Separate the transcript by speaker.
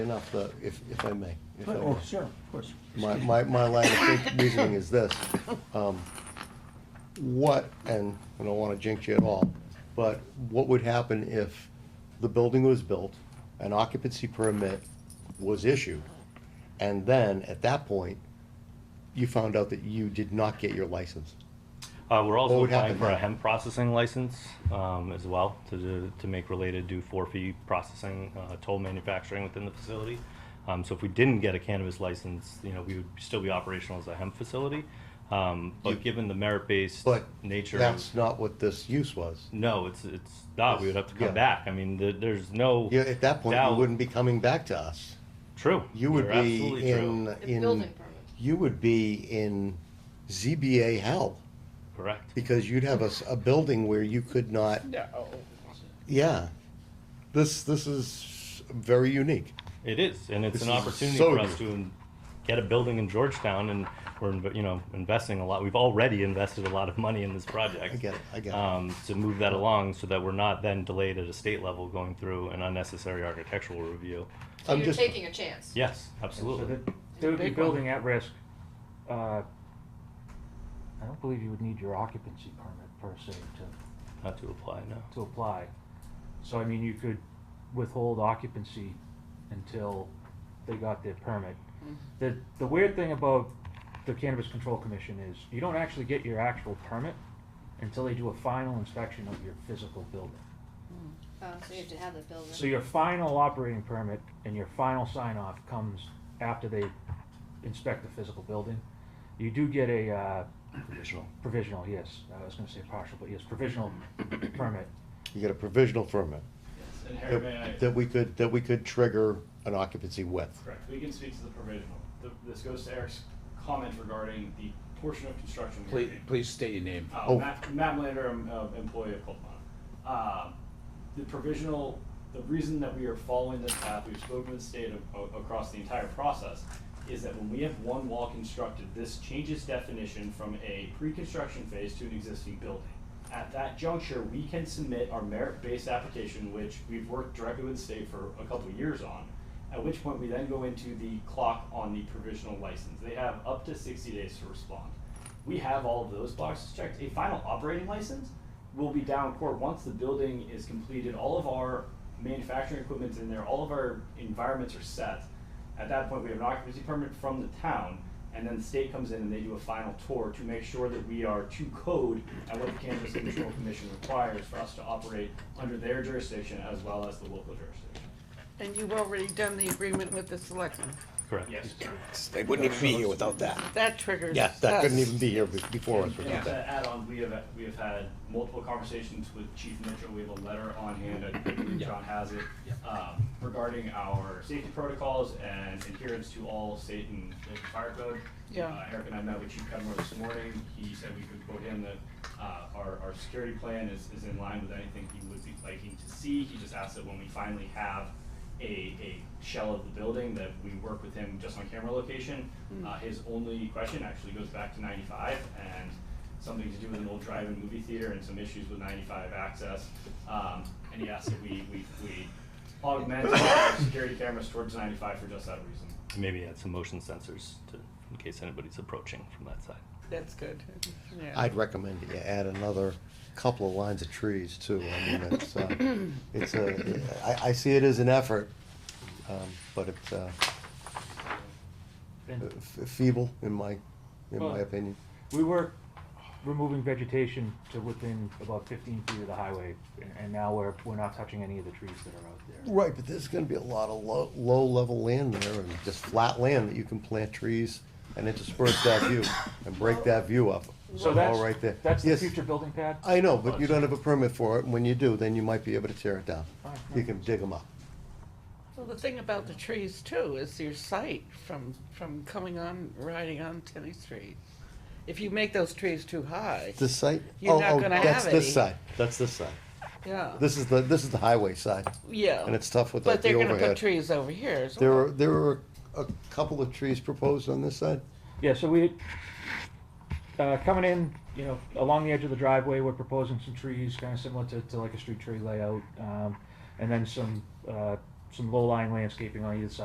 Speaker 1: Enough, uh, if, if I may. if I
Speaker 2: Oh,
Speaker 1: may.
Speaker 2: sure, of course.
Speaker 1: My, my, my line of think- reasoning is this. um, What, and I don't wanna jinx you at all, but what would happen if the building was built, an occupancy permit was issued, and then, at that point, you found out that you did not get your license?
Speaker 3: Uh, we're also
Speaker 1: would
Speaker 3: applying
Speaker 1: happen
Speaker 3: for a
Speaker 1: then?
Speaker 3: hemp processing license, um, as well, to, do- to make related do four-fee processing, uh, toll manufacturing within the facility. Um, so if we didn't get a cannabis license, you know, we would still be operational as a hemp facility. Um,
Speaker 1: You-
Speaker 3: but given the merit-based
Speaker 1: But
Speaker 3: nature of.
Speaker 1: that's not what this use was.
Speaker 3: No, it's, it's not, we would have to
Speaker 1: Yeah.
Speaker 3: come back, I mean, there, there's no.
Speaker 1: Yeah, at that point, you
Speaker 3: doubt-
Speaker 1: wouldn't be coming back to us.
Speaker 3: True.
Speaker 1: You would
Speaker 3: You're
Speaker 1: be
Speaker 3: absolutely true.
Speaker 1: in,
Speaker 4: The
Speaker 1: in,
Speaker 4: building permit.
Speaker 1: you would be in ZBA hell.
Speaker 3: Correct.
Speaker 1: Because you'd have a, s- a building where you could not. No. Yeah. This, this is very unique.
Speaker 3: It is, and it's
Speaker 1: This
Speaker 3: an
Speaker 1: is
Speaker 3: opportunity
Speaker 1: so
Speaker 3: for us
Speaker 1: good.
Speaker 3: to in- get a building in Georgetown, and we're inv- you know investing a lot. We've already invested a lot of money in this project.
Speaker 1: I get it, I get it.
Speaker 3: Um, to move that along, so that we're not then delayed at a state level going through an unnecessary architectural review.
Speaker 4: So
Speaker 1: I'm
Speaker 4: you're
Speaker 1: just-
Speaker 4: taking a chance.
Speaker 3: Yes,
Speaker 2: So
Speaker 3: absolutely.
Speaker 2: that- They would be
Speaker 4: Big one.
Speaker 2: building at risk. Uh, I don't believe you would need your occupancy permit per se to,
Speaker 3: Not to apply now.
Speaker 2: to apply. So I mean, you could withhold occupancy until they got their permit. The, the weird thing about the Cannabis Control Commission is you don't actually get your actual permit until they do a final inspection of your physical building.
Speaker 4: Oh, so you have to have the building.
Speaker 2: So your final operating permit and your final sign off comes after they inspect the physical building. You do get a uh,
Speaker 3: Provisional.
Speaker 2: provisional, yes, I was gonna say partial, but yes, provisional permit.
Speaker 1: You get a provisional permit
Speaker 5: And Harry, may I?
Speaker 1: that that we could, that we could trigger an occupancy with.
Speaker 5: Correct, we can speak to the provisional. The- This goes to Eric's comment regarding the portion of construction. we are
Speaker 6: Please,
Speaker 5: doing.
Speaker 6: please state your name.
Speaker 5: Uh,
Speaker 1: Oh.
Speaker 5: Matt, Matt Melander, I'm, uh, employee of Colpana. Um, the provisional, the reason that we are following this path, we've spoken with the state of, o- across the entire process, is that when we have one wall constructed, this changes definition from a pre-construction phase to an existing building. At that juncture, we can submit our merit-based application, which we've worked directly with the state for a couple of years on. At which point, we then go into the clock on the provisional license. They have up to sixty days to respond we have all of those boxes checked. A final operating license will be down court once the building is completed. All of our manufacturing equipment's in there, all of our environments are set. At that point, we have an occupancy permit from the town, and then the state comes in and they do a final tour to make sure that we are to code at what the Cannabis Control Commission requires for us to operate under their jurisdiction as well as the local jurisdiction.
Speaker 7: And you've already done the agreement with the selectmen.
Speaker 3: Correct.
Speaker 5: Yes.
Speaker 6: They wouldn't even be here without that.
Speaker 7: That triggers
Speaker 1: Yeah, that couldn't
Speaker 7: us.
Speaker 1: even be here be- before us
Speaker 5: And
Speaker 1: without
Speaker 5: to
Speaker 1: that.
Speaker 5: add on, we have, we have had multiple conversations with Chief Mitchell, we have a letter on hand, I believe John has it, um, regarding our safety protocols and adherence to all state and local fire code.
Speaker 7: Yeah.
Speaker 5: Uh, Eric and I met with Chief Cudmore this morning, he said we could quote him that, uh, our, our security plan is, is in line with anything he would be liking to see, he just asked that when we finally have a, a shell of the building, that we work with him just on camera location. Uh, his only question actually goes back to ninety-five, and something to do with an old drive-in movie theater and some issues with ninety-five access. Um, and he asked that we, we, we augment our security cameras towards ninety-five for just that reason.
Speaker 3: Maybe add some motion sensors to, in case anybody's approaching from that side.
Speaker 7: That's good. Yeah.
Speaker 1: I'd recommend that you add another couple of lines of trees too. I mean, it's, uh, it's a, I, I see it as an effort, um, but it's, uh,
Speaker 2: And
Speaker 1: f- feeble in my, in
Speaker 2: Well-
Speaker 1: my opinion.
Speaker 2: we were removing vegetation to within about fifteen feet of the highway, and- and now we're, we're not touching any of the trees that are out there.
Speaker 1: Right, but there's gonna be a lot of low, low-level land there, and just flat land that you can plant trees and intersperse that view, and break that view up.
Speaker 2: So
Speaker 1: all
Speaker 2: that's,
Speaker 1: right there.
Speaker 2: that's the
Speaker 1: Yes,
Speaker 2: future Oh, building pad?
Speaker 1: I know, but you don't have a permit for it, and when you do, then you might be able to tear it down.
Speaker 2: All right,
Speaker 1: You
Speaker 2: no.
Speaker 1: can dig them up.
Speaker 7: Well, the thing about the trees too is your sight from, from coming on, riding on Tenny Street. If you make those trees too high,
Speaker 1: This site?
Speaker 7: You're
Speaker 1: Oh,
Speaker 7: not
Speaker 1: oh,
Speaker 7: gonna have
Speaker 1: That's this
Speaker 7: any.
Speaker 1: side, that's this side.
Speaker 7: yeah,
Speaker 1: This is the, this is the highway side,
Speaker 7: yeah.
Speaker 1: and it's tough with like
Speaker 7: But
Speaker 1: the
Speaker 7: they're
Speaker 1: overhead.
Speaker 7: gonna put trees over here as
Speaker 1: There
Speaker 7: well.
Speaker 1: were, there were a couple of trees proposed on this side?
Speaker 2: Yeah, so we, uh, coming in, you know, along the edge of the driveway, we're proposing some trees, kind of similar to, to like a street tree layout. Um, and then some, uh, some low-lying landscaping on either side.